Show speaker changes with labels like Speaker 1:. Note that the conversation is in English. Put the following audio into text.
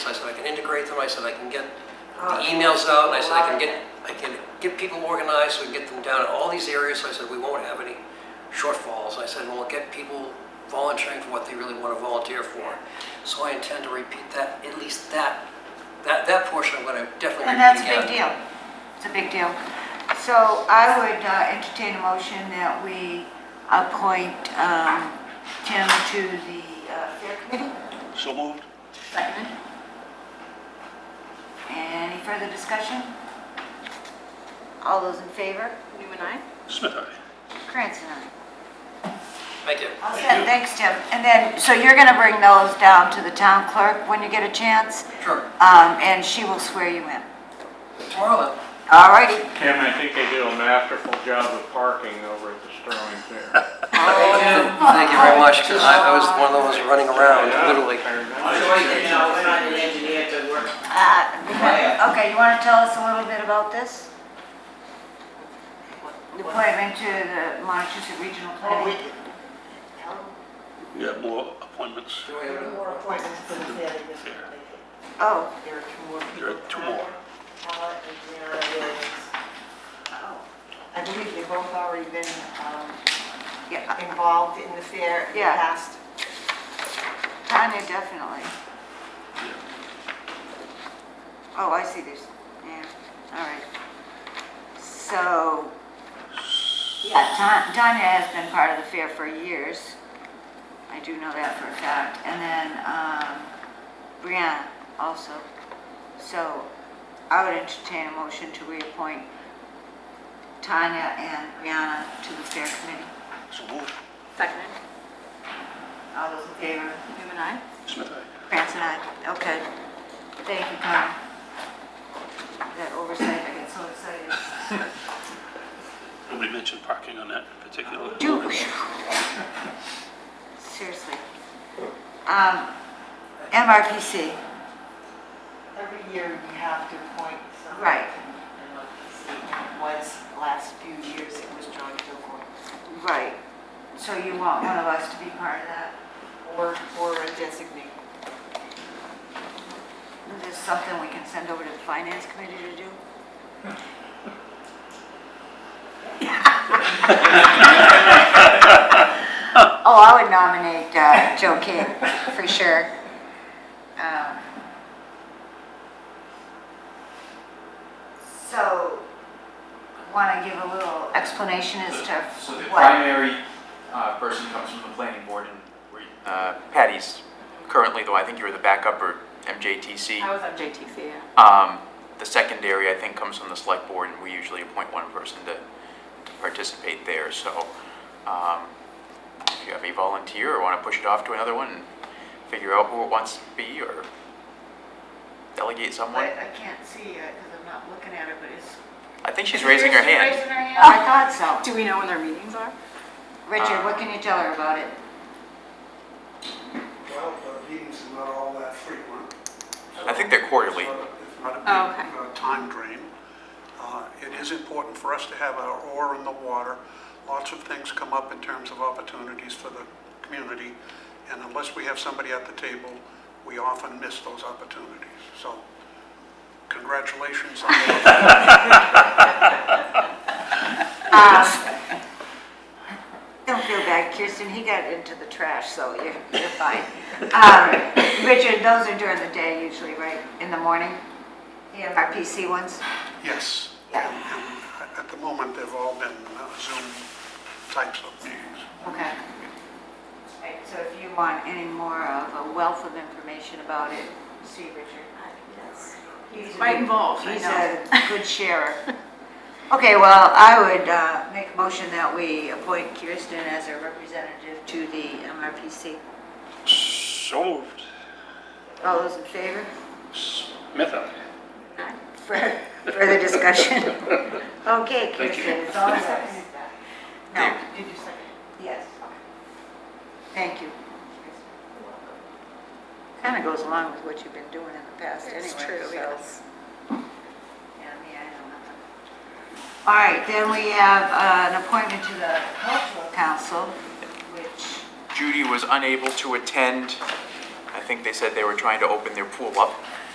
Speaker 1: integrate them, I said I can get the
Speaker 2: Oh,
Speaker 1: emails out, and I said I can
Speaker 2: love
Speaker 1: get, I can get people organized, so we can get them down in all these areas, so I said we won't have any shortfalls, I said we'll get people volunteering for what they really want to volunteer for. So I intend to repeat that, at least that, that, that portion I'm gonna definitely repeat
Speaker 2: And that's a
Speaker 1: again.
Speaker 2: big deal. It's a big deal. So I would uh, entertain a motion that we appoint um, Tim to the uh, Fair Committee.
Speaker 3: So moved.
Speaker 2: Second. Any further discussion? All those in favor?
Speaker 4: Newman, I.
Speaker 3: Smith, aye.
Speaker 2: Krantz and I.
Speaker 1: Thank you.
Speaker 2: All set. Thanks, Tim. And then, so you're going to bring those down to the town clerk when you get a chance,
Speaker 1: Sure.
Speaker 2: um, and she will swear you in.
Speaker 1: Tomorrow
Speaker 2: All righty.
Speaker 5: Tim, I think they do a masterful job of parking over at the Sterling Fair.
Speaker 1: then. Thank you very much, 'cause I, I was one of those running around,
Speaker 5: Yeah,
Speaker 1: Oh, literally.
Speaker 5: I remember.
Speaker 6: I'm sure you know, we're not an engineer to work.
Speaker 2: Uh, Okay, you want to tell us a little bit about this? The appointment to the Montezuma Regional
Speaker 6: Well, we,
Speaker 2: Planning?
Speaker 3: You have more appointments.
Speaker 1: Do we have
Speaker 6: there are
Speaker 1: a-
Speaker 6: more appointments for the fair than this one.
Speaker 2: Oh,
Speaker 6: There are two more people.
Speaker 3: There are two more.
Speaker 6: Paula and Brianna Williams. I believe they've both already been um,
Speaker 2: oh, yeah,
Speaker 6: involved in the fair in the
Speaker 2: Yeah.
Speaker 6: past.
Speaker 2: Tanya, definitely. Oh, I see this, yeah, all right. So, yeah, Ta- Tanya has been part of the fair for years. I do know that for a fact. And then um, Brianna also. So I would entertain a motion to reappoint Tanya and Brianna to the fair committee.
Speaker 3: So moved.
Speaker 4: Second.
Speaker 2: All those in favor?
Speaker 4: Newman, I.
Speaker 3: Smith, aye.
Speaker 2: Krantz and I, okay. Thank you, Carmen. That oversight, I get so excited.
Speaker 3: Nobody mentioned parking on that particular.
Speaker 2: Do. Seriously. Um, MRPC,
Speaker 6: Every year you have to appoint someone.
Speaker 2: Right.
Speaker 6: And like you see, it was last few years, it was John Kilgore.
Speaker 2: right. So you want one of us to be part of that?
Speaker 6: Or, or a designee.
Speaker 2: Is this something we can send over to the finance committee to do? Oh, I would nominate uh, Joe King, for sure. Um, So, want to give a little explanation as to
Speaker 7: So the
Speaker 2: what?
Speaker 7: primary uh, person comes from the planning board and we- uh, Patty's currently, though I think you were the backup or MJTC.
Speaker 4: I was on JTC, yeah.
Speaker 7: Um, The secondary, I think, comes from the select board and we usually appoint one person to to participate there. So um, if you have a volunteer or want to push it off to another one and figure out who it wants to be or delegate someone.
Speaker 6: I can't see it because I'm not looking at it, but it's
Speaker 7: I think she's raising her hand.
Speaker 2: I thought so.
Speaker 4: Do we know when their meetings are?
Speaker 2: Richard, what can you tell her about it?
Speaker 8: Well, the meetings are not all that frequent.
Speaker 7: I think they're quarterly.
Speaker 8: It's not a- It's not
Speaker 4: Oh,
Speaker 8: a big uh, time drain. Uh, It is important for us to have our oar in the water. Lots of things come up in terms of opportunities for the community, and unless we have somebody at the table, we often miss those opportunities. So congratulations on that.
Speaker 2: Don't feel bad, Kirsten, he got into the trash, so you're, you're fine. Um, Richard, those are during the day usually, right, in the morning? Yeah. Our PC ones?
Speaker 8: Yes.
Speaker 2: Yeah.
Speaker 8: And- and At the moment, they've all been uh, Zoom types of meetings.
Speaker 2: Okay. Right, so if you want any more of a wealth of information about it, see Richard. He's a
Speaker 4: Quite
Speaker 2: good-
Speaker 4: involved, I
Speaker 2: He's
Speaker 4: know.
Speaker 2: a good sharer. Okay, well, I would uh, make a motion that we appoint Kirsten as a representative to the MRPC.
Speaker 3: So moved.
Speaker 2: All those in favor?
Speaker 3: Smith, aye.
Speaker 2: Fur- Further discussion? Okay,
Speaker 3: Thank you.
Speaker 2: Kirsten, it's all yours.
Speaker 6: seconded that.
Speaker 2: No,
Speaker 6: Did you second?
Speaker 2: yes. Thank you. Kind of goes along with what you've been doing in the past anyway. so- Yeah, me, I know nothing. All right, then we have uh, an appointment to the cultural council, which,
Speaker 7: Judy was unable to attend. I think they said they were trying to open their pool up.